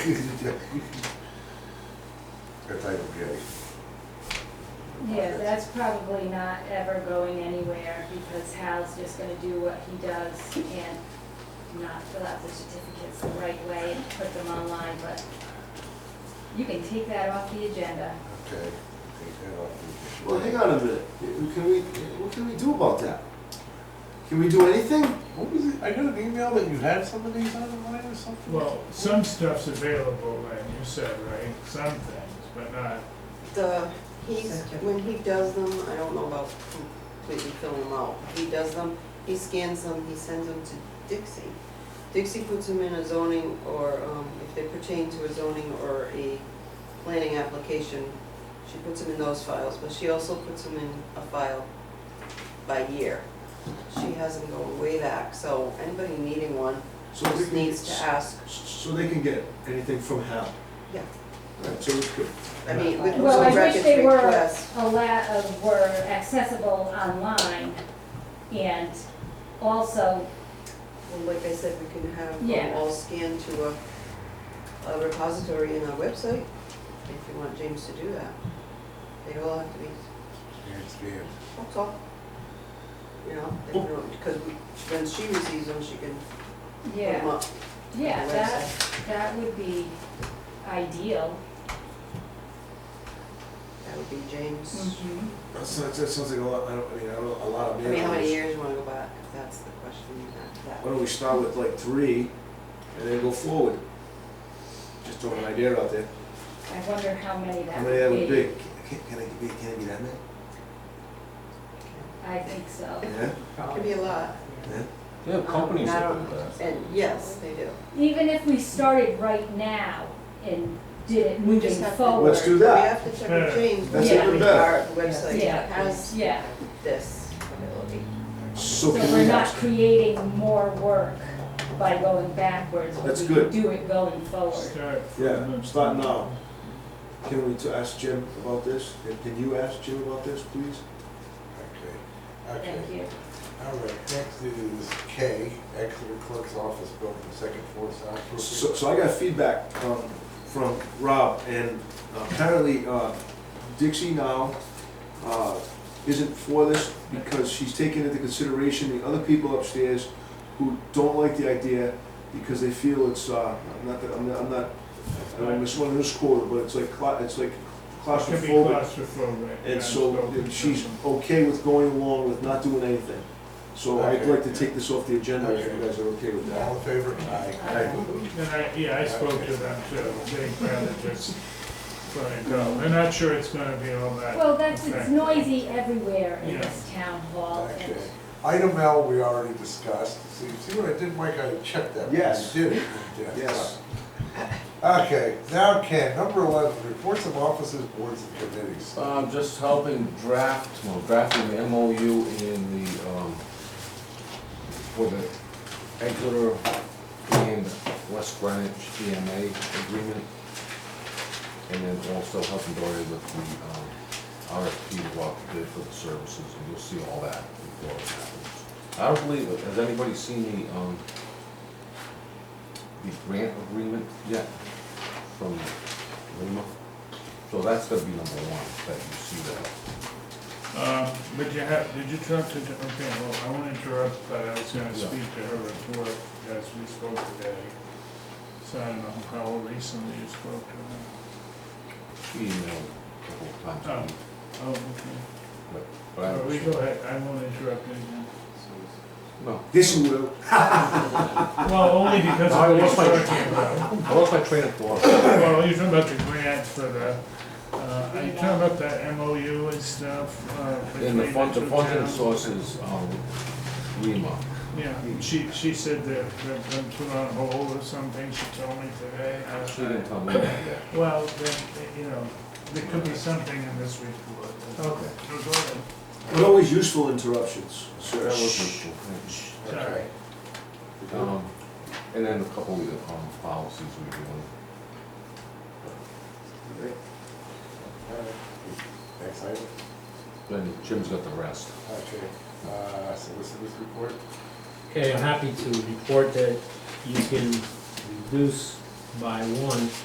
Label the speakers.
Speaker 1: That's item J.
Speaker 2: Yeah, that's probably not ever going anywhere because Hal's just gonna do what he does and not fill out the certificates the right way and put them online, but you can take that off the agenda.
Speaker 1: Okay, take that off.
Speaker 3: Well, hang on a minute. Can we, what can we do about that? Can we do anything?
Speaker 1: What was it? I got an email that you had some of these online or something?
Speaker 4: Well, some stuff's available, and you said, right, some things, but not,
Speaker 5: The, he's, when he does them, I don't know about completely filling them out. He does them, he scans them, he sends them to Dixie. Dixie puts them in a zoning or, um, if they pertain to a zoning or a planning application, she puts them in those files, but she also puts them in a file by year. She has them go way back, so anybody needing one
Speaker 3: So they
Speaker 5: just
Speaker 3: can-
Speaker 5: needs to ask.
Speaker 3: So they can get anything from Hal?
Speaker 5: Yeah.
Speaker 3: All right, so it's good.
Speaker 5: I mean, with
Speaker 2: Well,
Speaker 5: those
Speaker 2: I wish
Speaker 5: records
Speaker 2: they were
Speaker 5: requests.
Speaker 2: a lot of, were accessible online and also,
Speaker 5: Well, like I said, we can have
Speaker 2: Yeah.
Speaker 5: them all scanned to a, a repository in our website, if you want James to do that. They all have to be,
Speaker 1: Scan, scan.
Speaker 5: that's all. You know, they don't, because when she receives them, she can put them
Speaker 2: yeah,
Speaker 5: up.
Speaker 2: yeah,
Speaker 5: on the
Speaker 2: that,
Speaker 5: website.
Speaker 2: that would be ideal.
Speaker 5: That would be James.
Speaker 2: Mm-hmm.
Speaker 3: That sounds, that sounds like a lot, I don't, I mean, I don't, know, a lot of
Speaker 5: I
Speaker 3: man
Speaker 5: mean, how many
Speaker 3: hours.
Speaker 5: years you wanna go back, if that's the question you have
Speaker 3: Why
Speaker 5: to
Speaker 3: don't we start with like three and then go forward? Just throwing an idea out there.
Speaker 2: I wonder how many
Speaker 3: How
Speaker 2: that
Speaker 3: many that would
Speaker 2: would
Speaker 3: be?
Speaker 2: be.
Speaker 3: Can, can it be, can it be that many?
Speaker 2: I think so.
Speaker 3: Yeah,
Speaker 5: that. Could be a lot, Um,
Speaker 3: yeah.
Speaker 6: They have companies that do that.
Speaker 5: and yes, they do.
Speaker 2: Even if we started right now and did it
Speaker 5: We just
Speaker 2: moving
Speaker 5: have to-
Speaker 2: forward.
Speaker 3: Let's do that.
Speaker 5: We have to check with James,
Speaker 3: That's
Speaker 5: whether
Speaker 2: even
Speaker 3: better.
Speaker 5: our website
Speaker 2: Yeah.
Speaker 5: has
Speaker 2: Yeah,
Speaker 5: this ability.
Speaker 3: So
Speaker 2: so
Speaker 3: can
Speaker 2: we're
Speaker 3: we,
Speaker 2: not creating more work by going backwards. but
Speaker 3: That's
Speaker 2: we
Speaker 3: good.
Speaker 2: Do it going forward.
Speaker 4: start from.
Speaker 3: yeah, start now. Can we to ask Jim about this? Can- Can you ask Jim about this, please?
Speaker 1: Okay, okay.
Speaker 2: Thank you.
Speaker 1: All right, next is K, Exeter Clerk's Office Building, second floor
Speaker 3: So,
Speaker 1: soundproofing.
Speaker 3: so I got feedback um, from Rob, and apparently uh, Dixie now uh, isn't for this because she's taking into consideration the other people upstairs who don't like the idea because they feel it's uh, I'm not that I'm not, I'm not I don't miss one of this quarter, but it's like cla- it's like
Speaker 4: It could be
Speaker 3: claustrophobic,
Speaker 4: claustrophobic.
Speaker 3: and so
Speaker 4: spoken
Speaker 3: she's
Speaker 4: to.
Speaker 3: okay with going along with not doing anything. So I'd like to take this off the agenda if you guys are okay with that.
Speaker 1: All in favor?
Speaker 2: Aye.
Speaker 4: And I, yeah, I spoke to them too, they'd rather just let it go, they're not sure it's gonna be all that.
Speaker 2: Well, that's, it's
Speaker 4: effective.
Speaker 2: noisy everywhere in
Speaker 4: Yeah.
Speaker 2: this town hall. and-
Speaker 1: Okay. Item L, we already discussed. See, see what I did, Mike? I checked that.
Speaker 3: Yes.
Speaker 1: You did it. Yeah.
Speaker 3: Yes.
Speaker 1: Okay, now Ken, number eleven, reports of officers, boards and committees.
Speaker 6: Um, just helping draft, well, drafting the MOU in the, um, for the Exeter and West Greenwich EMA agreement. And then also helping Dory with the, um, RFP walk bid for the services, and you'll see all that before it happens. I don't believe it, has anybody seen the, um, the grant agreement yet from Lima? So that's gonna be number one, that you see that.
Speaker 4: Um, but you have, did you talk to, okay, well, I won't interrupt, but I was gonna
Speaker 6: Yeah.
Speaker 4: speak to her before, as we spoke today. So I don't know how recently you spoke to her.
Speaker 6: She emailed a couple of times. a week,
Speaker 4: Oh, okay.
Speaker 6: but- But I
Speaker 4: Well, we
Speaker 6: don't,
Speaker 4: go ahead, I won't interrupt again.
Speaker 6: no,
Speaker 3: This you will.
Speaker 4: Well, only because
Speaker 6: I
Speaker 4: of what
Speaker 6: lost my-
Speaker 4: you're talking about.
Speaker 6: I lost my train of thought.
Speaker 4: Well, you're talking about the grant for the, uh, are you talking about that MOU and stuff? uh,
Speaker 6: And the
Speaker 4: between
Speaker 6: fund, the
Speaker 4: two
Speaker 6: funding
Speaker 4: towns?
Speaker 6: source is, um, Lima.
Speaker 4: Yeah, she, she said that they've been put on hold or something, she told me today. I-
Speaker 6: She didn't tell me that yet.
Speaker 4: Well, then, you know, there could be something in this report.
Speaker 6: Okay.
Speaker 4: So go ahead.
Speaker 3: But always useful interruptions,
Speaker 6: That
Speaker 3: sir.
Speaker 6: was useful, thanks.
Speaker 4: Sorry.
Speaker 6: Um, and then a couple of the, um, policies we're doing.
Speaker 1: Alright, Next item.
Speaker 6: Then Jim's got the rest.
Speaker 1: Okay, uh, solicitors report.
Speaker 7: Okay, I'm happy to report that you can reduce by one